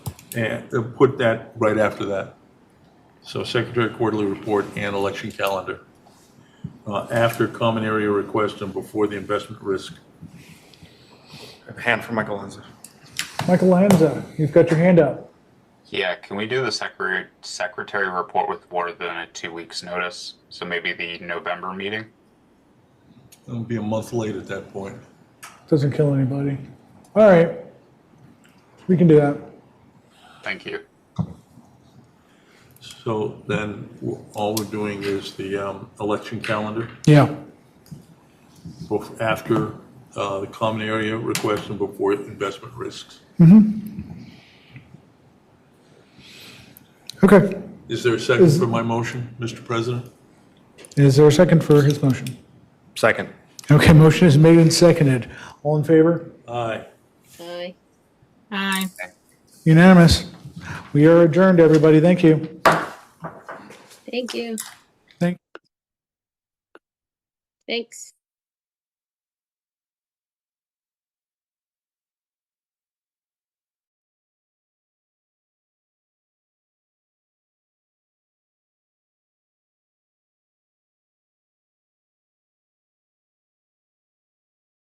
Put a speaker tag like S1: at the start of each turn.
S1: and uh, put that right after that. So secretary quarterly report and election calendar. Uh, After common area request and before the investment risk.
S2: Hand for Michael Lanza.
S3: Michael Lanza, you've got your hand up.
S4: Yeah, can we do the secretary, secretary report with more than a two weeks notice? So maybe the November meeting?
S1: It'll be a month late at that point.
S3: Doesn't kill anybody. All right. We can do that.
S4: Thank you.
S1: So then w- all we're doing is the um, election calendar
S3: Yeah.
S1: bef- after uh, the common area request and before investment risks.
S3: Okay.
S1: Is there a second
S3: Is-
S1: for my motion, Mr. President?
S3: Is there a second for his motion?
S2: Second.
S3: Okay, motion is made and seconded. All in favor?
S1: Aye.
S5: Aye.
S6: Aye.
S3: Unanimous. We are adjourned, everybody. Thank you.
S5: Thank you.
S3: Thank-
S5: Thanks.